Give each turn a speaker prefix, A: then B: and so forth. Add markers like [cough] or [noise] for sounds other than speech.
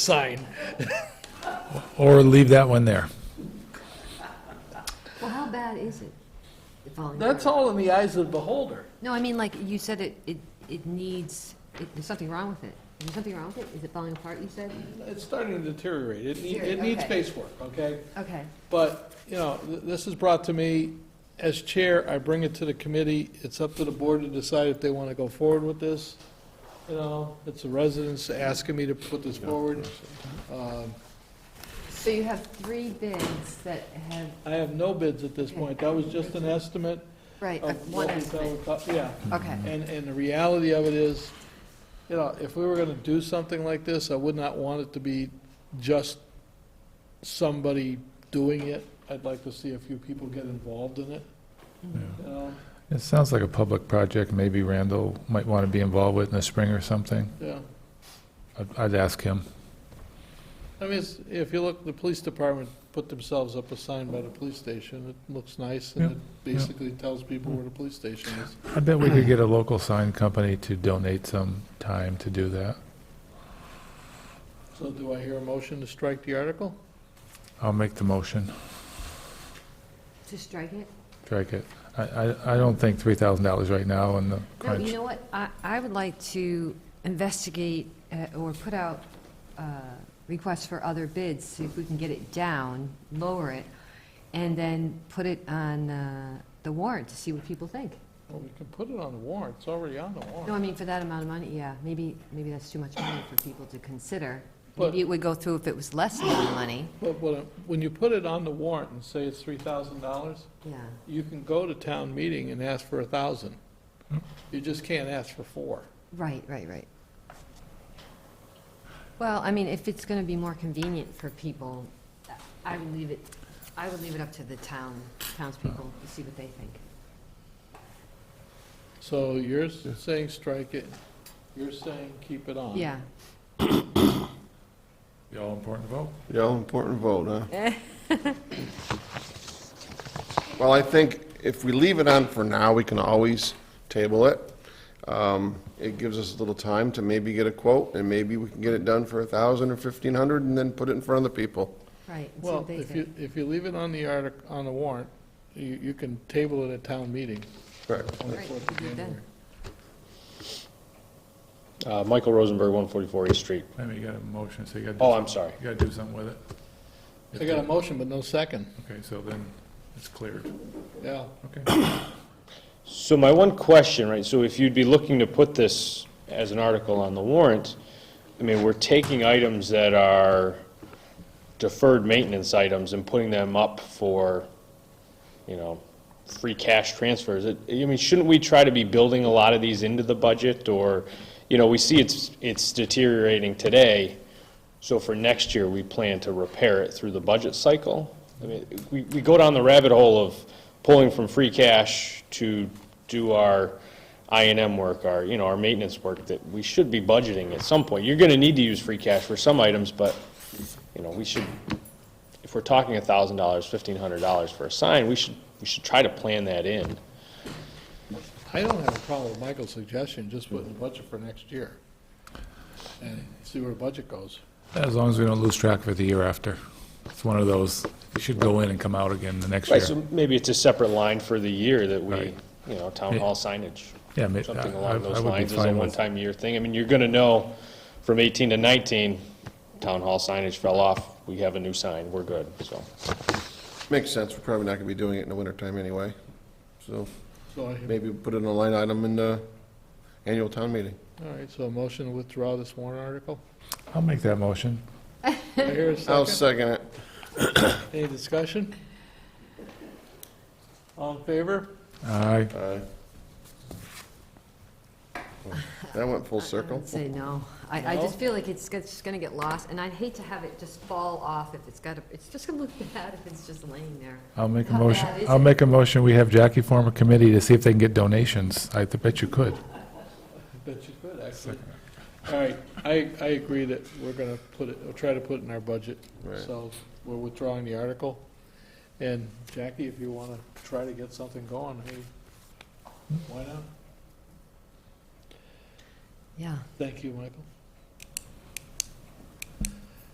A: sign.
B: Or leave that one there.
C: Well, how bad is it? the falling
A: That's
C: apart?
A: all in the eyes of the beholder.
C: No, I mean, like, you said it, it, it needs, it- there's something wrong with it. Is there something wrong with it? Is it falling apart, you said?
A: It's starting to deteriorate. It, need- it
C: Deteriorate,
A: needs
C: okay.
A: space work, okay?
C: Okay.
A: But, you know, th- this is brought to me, as chair, I bring it to the committee. It's up to the board to decide if they want to go forward with this. You know, it's the residents asking me to put this forward. Um,
C: So you have three bids that have,
A: I have no bids at this point. That was just an estimate
C: right, uh,
A: of
C: one
A: what we
C: estimate.
A: felt- Yeah.
C: Okay,
A: And, and the reality of it is, you know, if we were gonna do something like this, I would not want it to be just somebody doing it. I'd like to see a few people get involved in it,
C: Mm-hmm.
A: you know,
B: It sounds like a public project, maybe Randall might want to be involved with in the spring or something.
A: yeah.
B: I'd- I'd ask him.
A: I mean, it's- if you look, the police department put themselves up a sign by the police station. It looks nice and
B: Yeah,
A: it basically tells people where the police station is.
B: I bet we could get a local sign company to donate some time to do that.
A: So do I hear a motion to strike the article?
B: I'll make the motion,
C: to strike it?
B: strike it. I, I, I don't think $3,000 right now in the
C: No, you
B: crunch.
C: know what? I, I would like to investigate uh, or put out uh, requests for other bids, see if we can get it down, lower it, and then put it on uh, the warrant to see what people think.
A: Well, we can put it on the warrant. It's already on the
C: No, I
A: warrant.
C: mean, for that amount of money, yeah, maybe, maybe that's too much money for people to consider.
A: But-
C: Maybe it would go through if it was less amount of money,
A: But what I- when you put it on the warrant and say it's three thousand dollars,
C: yeah.
A: you can go to town meeting and ask for a thousand. You just can't ask for four.
C: Right, right, right. Well, I mean, if it's gonna be more convenient for people, I would leave it, I would leave it up to the town, townspeople, to see what they think.
A: So you're s- saying strike it, you're saying keep it on.
C: Yeah,
B: The all-important vote?
D: Yeah, important vote, huh? Well, I think if we leave it on for now, we can always table it. Um, It gives us a little time to maybe get a quote, and maybe we can get it done for a thousand or fifteen hundred, and then put it in front of the people.
C: right, and see
A: Well,
C: what they
A: if you,
C: think.
A: if you leave it on the artic, on the warrant, you, you can table it at town meeting.
D: Right.
A: on the
C: Right,
A: 4th of
C: you do it then.
A: January.
E: Uh, Michael Rosenberg, 144 East Street.
B: I mean, you got a motion, so you got to.
E: Oh, I'm sorry.
B: You got to do something with it.
A: I got a motion, but no second.
B: Okay, so then it's cleared.
A: Yeah,
B: Okay.
E: So my one question, right, so if you'd be looking to put this as an article on the warrant, I mean, we're taking items that are deferred maintenance items and putting them up for, you know, free cash transfers. It- I mean, shouldn't we try to be building a lot of these into the budget, or, you know, we see it's, it's deteriorating today, so for next year, we plan to repair it through the budget cycle? I mean, we, we go down the rabbit hole of pulling from free cash to do our I and M work, our, you know, our maintenance work, that we should be budgeting at some point. You're gonna need to use free cash for some items, but, you know, we should, if we're talking a thousand dollars, fifteen hundred dollars for a sign, we should, we should try to plan that in.
A: I don't have a problem with Michael's suggestion, just put in the budget for next year. And see where the budget goes.
B: As long as we don't lose track for the year after. It's one of those, you should go in and come out again the next year.
E: Right, so maybe it's a separate line for the year that we,
B: Right.
E: you know, town hall signage.
B: Yeah, ma-
E: something
B: I- I-
E: along
B: I
E: those
B: would be
E: lines is a
B: fine with-
E: one-time year thing. I mean, you're gonna know from 18 to 19, town hall signage fell off, we have a new sign, we're good, so.
D: Makes sense, we're probably not gonna be doing it in the wintertime anyway. So
A: So I, hear-
D: maybe put it in a line item in the annual town meeting.
A: all right, so a motion to withdraw this warrant
C: [laughs]
A: article?
B: I'll make that motion.
A: Do I hear a 2nd
D: I'll second it.
A: Any discussion? All in favor?
B: Aye.
D: Aye. That went full
C: I
D: circle.
C: would say no. I, I just
A: No?
C: feel like it's, it's just gonna get lost, and I'd hate to have it just fall off if it's got, a- it's just gonna look [laughs] bad if it's just laying there.
B: I'll make a
C: How
B: motion,
C: bad is
B: I'll
C: it?
B: make a motion, we have Jackie form a committee to see if they can get donations. I th- bet you could.
A: I bet you could, actually. All right, I, I agree that we're gonna put it, we'll try to put it in our budget.
D: Right.
A: So we're withdrawing the article. And Jackie, if you wanna try to get something going, hey, why not?
C: Yeah.
A: Thank you, Michael.